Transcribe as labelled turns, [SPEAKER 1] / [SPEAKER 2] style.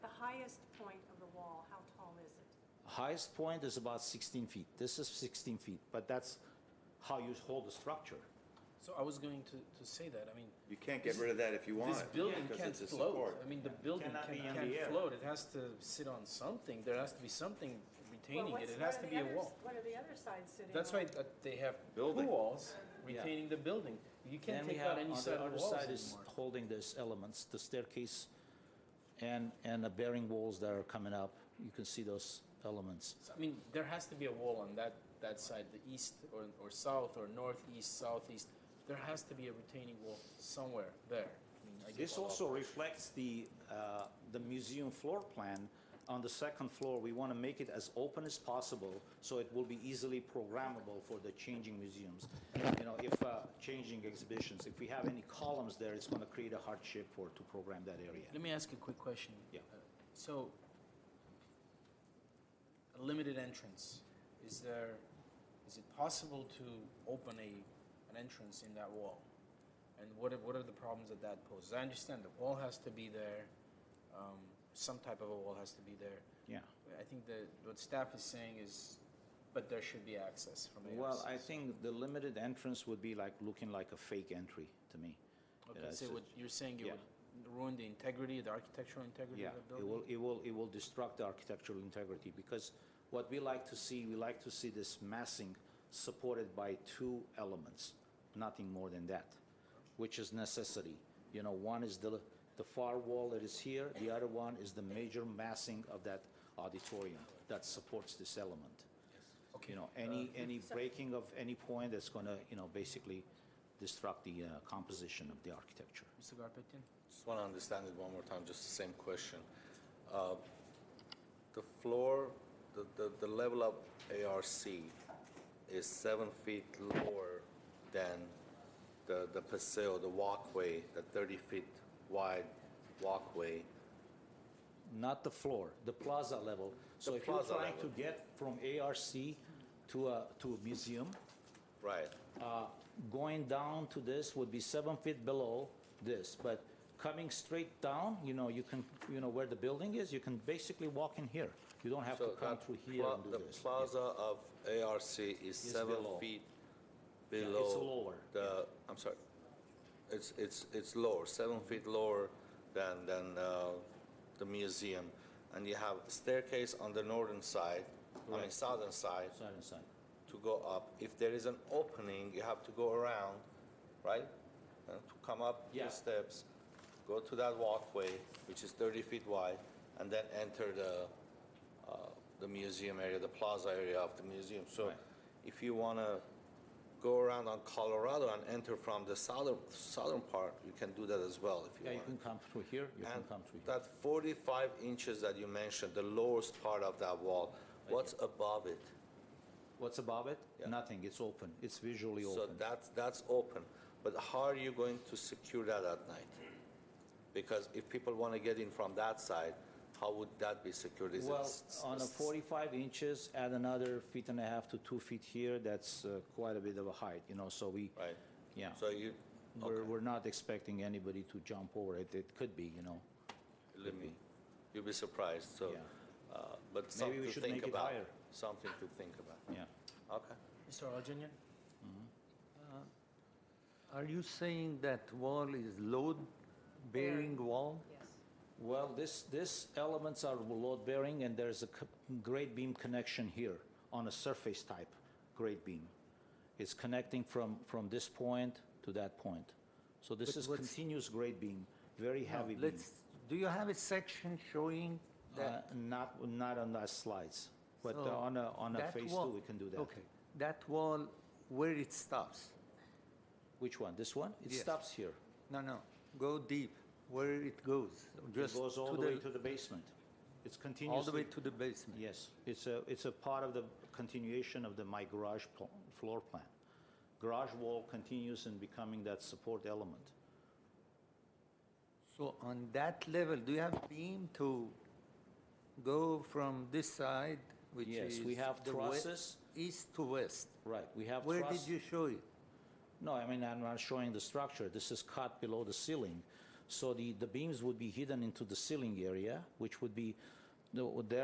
[SPEAKER 1] highest point of the wall, how tall is it?
[SPEAKER 2] Highest point is about 16 feet. This is 16 feet, but that's how you hold the structure.
[SPEAKER 3] So I was going to, to say that, I mean,
[SPEAKER 4] You can't get rid of that if you want.
[SPEAKER 3] this building
[SPEAKER 4] because
[SPEAKER 3] can't
[SPEAKER 4] it's a
[SPEAKER 3] float.
[SPEAKER 4] support.
[SPEAKER 3] I mean, the building
[SPEAKER 2] Cannot
[SPEAKER 3] can,
[SPEAKER 2] be in
[SPEAKER 3] can't
[SPEAKER 2] the air.
[SPEAKER 3] float, it has to sit on something, there has to be something
[SPEAKER 1] Well,
[SPEAKER 3] retaining it,
[SPEAKER 1] what's-
[SPEAKER 3] it
[SPEAKER 1] what
[SPEAKER 3] has
[SPEAKER 1] are
[SPEAKER 3] to
[SPEAKER 1] the
[SPEAKER 3] be a
[SPEAKER 1] others-
[SPEAKER 3] wall.
[SPEAKER 1] What are the other sides sitting on?
[SPEAKER 3] That's why uh, they have
[SPEAKER 4] Building.
[SPEAKER 3] walls
[SPEAKER 2] Yeah.
[SPEAKER 3] retaining the building.
[SPEAKER 2] Then
[SPEAKER 3] You can't
[SPEAKER 2] we
[SPEAKER 3] take out
[SPEAKER 2] have,
[SPEAKER 3] any
[SPEAKER 2] on
[SPEAKER 3] side
[SPEAKER 2] the
[SPEAKER 3] of
[SPEAKER 2] other
[SPEAKER 3] the walls
[SPEAKER 2] side is
[SPEAKER 3] anymore.
[SPEAKER 2] holding these elements, the staircase and, and the bearing walls that are coming up. You can see those elements.
[SPEAKER 3] So, I mean, there has to be a wall on that, that side, the east or, or south or northeast, southeast. There has to be a retaining wall somewhere there. I mean, I get
[SPEAKER 2] This
[SPEAKER 3] all
[SPEAKER 2] also reflects the, uh, the museum floor plan. On the second floor, we want to make it as open as possible, so it will be easily programmable for the changing museums. You know, if, uh, changing exhibitions, if we have any columns there, it's going to create a hardship for, to program that area.
[SPEAKER 3] Let me ask you a quick question.
[SPEAKER 2] Yeah.
[SPEAKER 3] Uh, So, a limited entrance, is there, is it possible to open a, an entrance in that wall? And what are, what are the problems that that poses? I understand the wall has to be there, um, some type of a wall has to be there.
[SPEAKER 2] Yeah.
[SPEAKER 3] I think that what staff is saying is, but there should be access from the
[SPEAKER 2] Well, I
[SPEAKER 3] outside.
[SPEAKER 2] think the limited entrance would be like, looking like a fake entry to me.
[SPEAKER 3] Okay,
[SPEAKER 2] Yeah,
[SPEAKER 3] so
[SPEAKER 2] it's-
[SPEAKER 3] what you're saying, it
[SPEAKER 2] yeah.
[SPEAKER 3] would ruin the integrity, the architectural integrity
[SPEAKER 2] Yeah,
[SPEAKER 3] of the
[SPEAKER 2] it
[SPEAKER 3] building?
[SPEAKER 2] will, it will, it will destruct the architectural integrity, because what we like to see, we like to see this massing supported by two elements, nothing more than that, which is necessity. You know, one is the, the far wall that is here, the other one is the major massing of that auditorium that supports this element.
[SPEAKER 3] Okay.
[SPEAKER 2] You
[SPEAKER 3] Uh,
[SPEAKER 2] know, any, any breaking of any point that's gonna, you know, basically destruct the uh, composition of the architecture.
[SPEAKER 3] Mr. Garpetian?
[SPEAKER 5] Just want to understand it one more time, just the same question. Uh, The floor, the, the, the level of ARC is seven feet lower than the, the paseo, the walkway, the thirty feet wide walkway.
[SPEAKER 2] not the floor, the plaza level. So
[SPEAKER 5] The
[SPEAKER 2] if you're
[SPEAKER 5] plaza
[SPEAKER 2] trying to
[SPEAKER 5] level.
[SPEAKER 2] get from ARC to a, to a museum,
[SPEAKER 5] Right.
[SPEAKER 2] uh, going down to this would be seven feet below this, but coming straight down, you know, you can, you know, where the building is, you can basically walk in here. You don't have to
[SPEAKER 5] So
[SPEAKER 2] come
[SPEAKER 5] that
[SPEAKER 2] through here
[SPEAKER 5] pla-
[SPEAKER 2] and do
[SPEAKER 5] The
[SPEAKER 2] this.
[SPEAKER 5] plaza of ARC is seven
[SPEAKER 2] below.
[SPEAKER 5] feet
[SPEAKER 2] it's
[SPEAKER 5] below.
[SPEAKER 2] lower,
[SPEAKER 5] The, uh, I'm sorry, it's, it's, it's lower, seven feet lower than, than uh, the museum. And you have staircase on the northern side, I mean
[SPEAKER 2] Correct.
[SPEAKER 5] southern side,
[SPEAKER 2] Side and side.
[SPEAKER 5] to go up. If there is an opening, you have to go around, right? And to come up
[SPEAKER 2] Yeah.
[SPEAKER 5] the steps, go to that walkway, which is 30 feet wide, and then enter the, uh, the museum area, the plaza area of the museum. So
[SPEAKER 2] Right.
[SPEAKER 5] if you want to go around on Colorado and enter from the southern, southern part, you can do that as well if you
[SPEAKER 2] Yeah, you
[SPEAKER 5] want.
[SPEAKER 2] can come through here, you can
[SPEAKER 5] And
[SPEAKER 2] come through here.
[SPEAKER 5] that 45 inches that you mentioned, the lowest part of that wall, what's above it?
[SPEAKER 2] What's above it?
[SPEAKER 5] Yeah.
[SPEAKER 2] Nothing, it's open, it's visually
[SPEAKER 5] So
[SPEAKER 2] open.
[SPEAKER 5] that's, that's open, but how are you going to secure that at night? Because if people want to get in from that side, how would that be secured? Is it
[SPEAKER 2] Well,
[SPEAKER 5] s- s-
[SPEAKER 2] on a 45 inches, add another feet and a half to two feet here, that's uh, quite a bit of a height, you know, so we.
[SPEAKER 5] Right.
[SPEAKER 2] Yeah.
[SPEAKER 5] So you,
[SPEAKER 2] We're,
[SPEAKER 5] okay,
[SPEAKER 2] we're not expecting anybody to jump over it. It could be, you know.
[SPEAKER 5] believe me, you'll be surprised, so,
[SPEAKER 2] Yeah.
[SPEAKER 5] uh, but
[SPEAKER 2] Maybe
[SPEAKER 5] something
[SPEAKER 2] we
[SPEAKER 5] to
[SPEAKER 2] should
[SPEAKER 5] think
[SPEAKER 2] make it
[SPEAKER 5] about.
[SPEAKER 2] higher.
[SPEAKER 5] Something to think about.
[SPEAKER 2] Yeah.
[SPEAKER 5] Okay.
[SPEAKER 3] Mr. Arjanian?
[SPEAKER 6] Are you saying that wall is load-bearing wall?
[SPEAKER 1] Yes.
[SPEAKER 2] Well, this, this elements are load bearing and there's a co- grade beam connection here on a surface type grade beam. It's connecting from, from this point to that point. So this
[SPEAKER 6] But
[SPEAKER 2] is
[SPEAKER 6] what's-
[SPEAKER 2] continuous grade beam, very heavy beam.
[SPEAKER 6] Let's, do you have a section showing
[SPEAKER 2] Uh,
[SPEAKER 6] that?
[SPEAKER 2] not, not on that slides, but uh,
[SPEAKER 6] So
[SPEAKER 2] on a, on a
[SPEAKER 6] that
[SPEAKER 2] phase
[SPEAKER 6] wall-
[SPEAKER 2] two, we can do that.
[SPEAKER 6] Okay, that wall, where it stops?
[SPEAKER 2] Which one? This one? It
[SPEAKER 6] Yes.
[SPEAKER 2] stops here.
[SPEAKER 6] No, no, go deep, where it goes?
[SPEAKER 2] It
[SPEAKER 6] Just
[SPEAKER 2] goes all
[SPEAKER 6] to
[SPEAKER 2] the way to the basement. It's continuously.
[SPEAKER 6] All the way to the basement?
[SPEAKER 2] Yes, it's a, it's a part of the continuation of the my garage pl- floor plan. Garage wall continues in becoming that support element.
[SPEAKER 6] So on that level, do you have beam to go from this side, which
[SPEAKER 2] Yes,
[SPEAKER 6] is?
[SPEAKER 2] we have
[SPEAKER 6] the we-
[SPEAKER 2] trusses.
[SPEAKER 6] East to west?
[SPEAKER 2] Right, we have
[SPEAKER 6] Where
[SPEAKER 2] truss-
[SPEAKER 6] did you show it?
[SPEAKER 2] No, I mean, I'm not showing the structure. This is cut below the ceiling. So the, the beams would be hidden into the ceiling area, which would be, no, there